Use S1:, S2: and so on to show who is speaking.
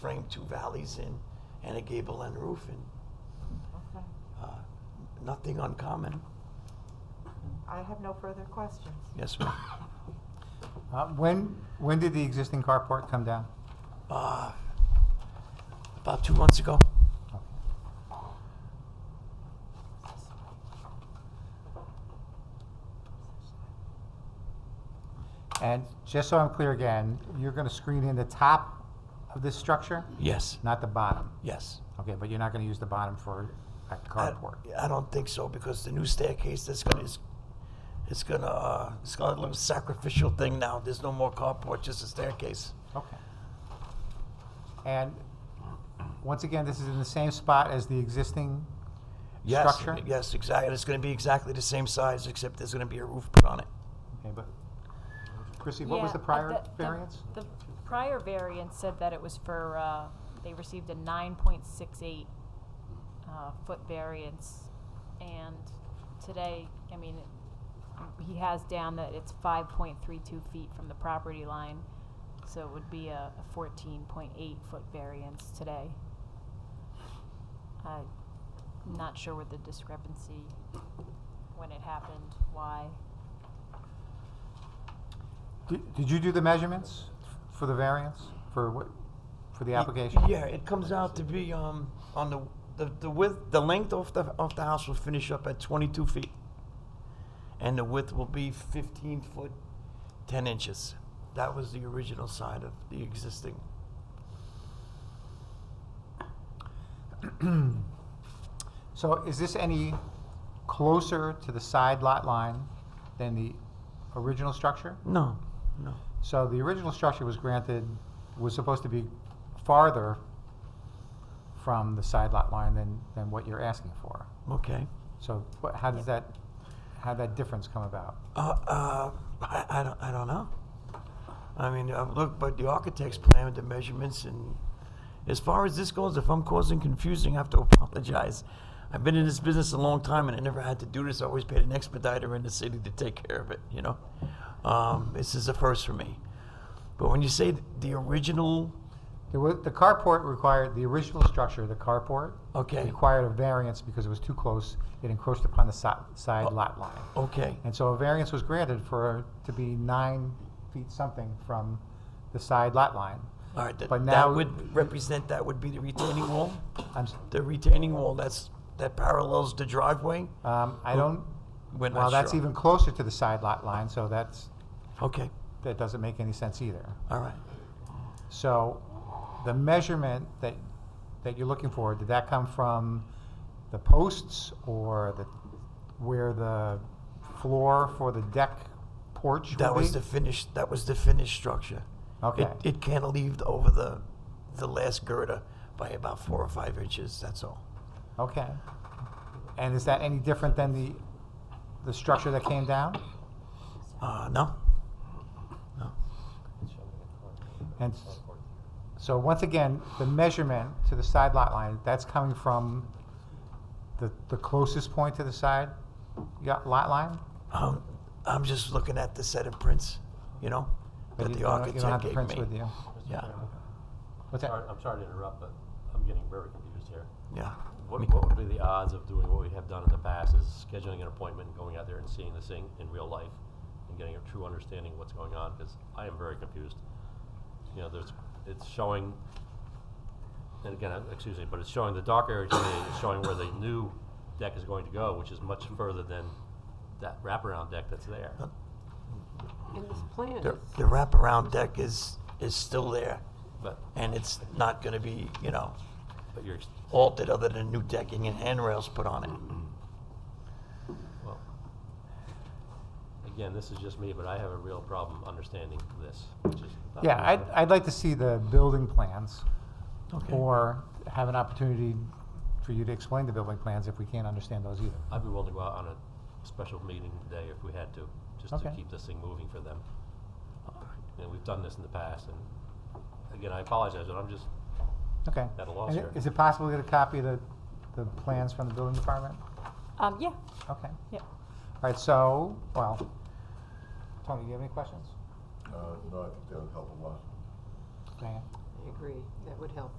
S1: framed two valleys in and a gable end roof and
S2: Okay.
S1: uh, nothing uncommon.
S2: I have no further questions.
S1: Yes, ma'am.
S3: Uh, When, when did the existing carport come down?
S1: Uh, about two months ago.
S3: Okay. And just so I'm clear again, you're going to screen in the top of this structure,
S1: Yes.
S3: not the bottom?
S1: Yes.
S3: Okay, but you're not going to use the bottom for a
S1: I-
S3: carport?
S1: I, don't think so because the new staircase that's gonna is, it's gonna uh, it's got a little sacrificial thing now. There's no more carport, just a staircase.
S3: Okay. And once again, this is in the same spot as the existing
S1: Yes,
S3: structure?
S1: yes, exactly. It's gonna be exactly the same size except there's gonna be a roof put on it.
S3: Okay, but Chrissy, what was
S4: Yeah,
S3: the
S4: uh,
S3: prior
S4: the-
S3: variance?
S4: The prior variance said that it was for, uh, they received a nine point six eight, uh, foot variance. And today, I mean, it- he has down that it's five point three two feet from the property line. So it would be a fourteen point eight foot variance today. I'm not sure what the discrepancy, when it happened, why.
S3: Did did you do the measurements for the variance, for what, for the application?
S1: Yeah, it comes out to be um on the the, the width the length of the of the house will finish up at 22 feet, and the width will be 15 foot 10 inches. That was the original side of the existing.
S3: So is this any closer to the side lot line than the original structure?
S1: No, no.
S3: So the original structure was granted, was supposed to be farther from the side lot line than, than what you're asking for.
S1: Okay.
S3: So what, how does that, how that difference come about?
S1: Uh, uh I, I don't I don't know. I mean, uh, look, but the architect's plan with the measurements and as far as this goes, if I'm causing confusing, I have to apologize. I've been in this business a long time and I never had to do this. I always paid an expediter in the city to take care of it, you know? Um, this is a first for me. But when you say the original,
S3: There was, the carport required, the original structure, the carport.
S1: Okay.
S3: Required a variance because it was too close, it encroached upon the si- side lot line.
S1: okay,
S3: And so a variance was granted for, to be nine feet something from the side lot line.
S1: all right, that,
S3: But
S1: that
S3: now-
S1: would represent, that would be the retaining wall?
S3: I'm, s-
S1: The retaining wall, that's, that parallels the driveway?
S3: um, I don't,
S1: We're not
S3: well, that's
S1: sure.
S3: even closer to the side lot line, so that's,
S1: Okay,
S3: that doesn't make any sense either.
S1: all right.
S3: So the measurement that, that you're looking for, did that come from the posts or the, where the floor for the deck porch would
S1: That was
S3: be?
S1: the finished. That was the finished structure.
S3: Okay.
S1: It, it cantilevered over the the last girder by about four or five inches. That's all.
S3: Okay. And is that any different than the, the structure that came down?
S1: Uh, no. No.
S3: And s- so once again, the measurement to the side lot line, that's coming from the, the closest point to the side ya- lot line?
S1: Um, I'm just looking at the set of prints, you know,
S3: But
S1: that
S3: you
S1: the
S3: don't-
S1: architect
S3: You don't have the
S1: gave
S3: prints
S1: me.
S3: with you?
S1: Yeah.
S3: What's
S5: Sorry-
S3: that?
S5: I'm sorry to interrupt, but I'm getting very confused here.
S1: Yeah.
S5: What,
S1: Me-
S5: what would be the odds of doing what we have done in the past is scheduling an appointment and going out there and seeing this thing in real life and getting a true understanding of what's going on, because I am very confused. You know, there's, it's showing, and again, uh, excuse me, but it's showing the dark area to me, it's showing where the new deck is going to go, which is much further than that wraparound deck that's there.
S6: In this plan,
S1: The, the wraparound deck is is still there,
S5: But,
S1: and it's not going to be, you know,
S5: but you're, ex-
S1: altered other than new decking and handrails put on it.
S5: Well, again, this is just me, but I have a real problem understanding this, which is. not
S3: Yeah, I'd,
S5: usual.
S3: I'd like to see the building plans
S1: Okay.
S3: or have an opportunity for you to explain the building plans if we can't understand those either.
S5: I'd be willing to go out on a special meeting today if we had to, just to
S3: Okay.
S5: keep this thing moving for them. And we've done this in the past, and again, I apologize, but I'm just,
S3: Okay.
S5: At a loss
S3: And i-
S5: here.
S3: Is it possible to get a copy of the, the plans from the building department?
S4: Um, yeah,
S3: Okay.
S4: yeah.
S3: All right, so, well, Tony, do you have any questions?
S7: Uh, no, I think that would help a lot.
S3: Diane?
S6: agree, that would help.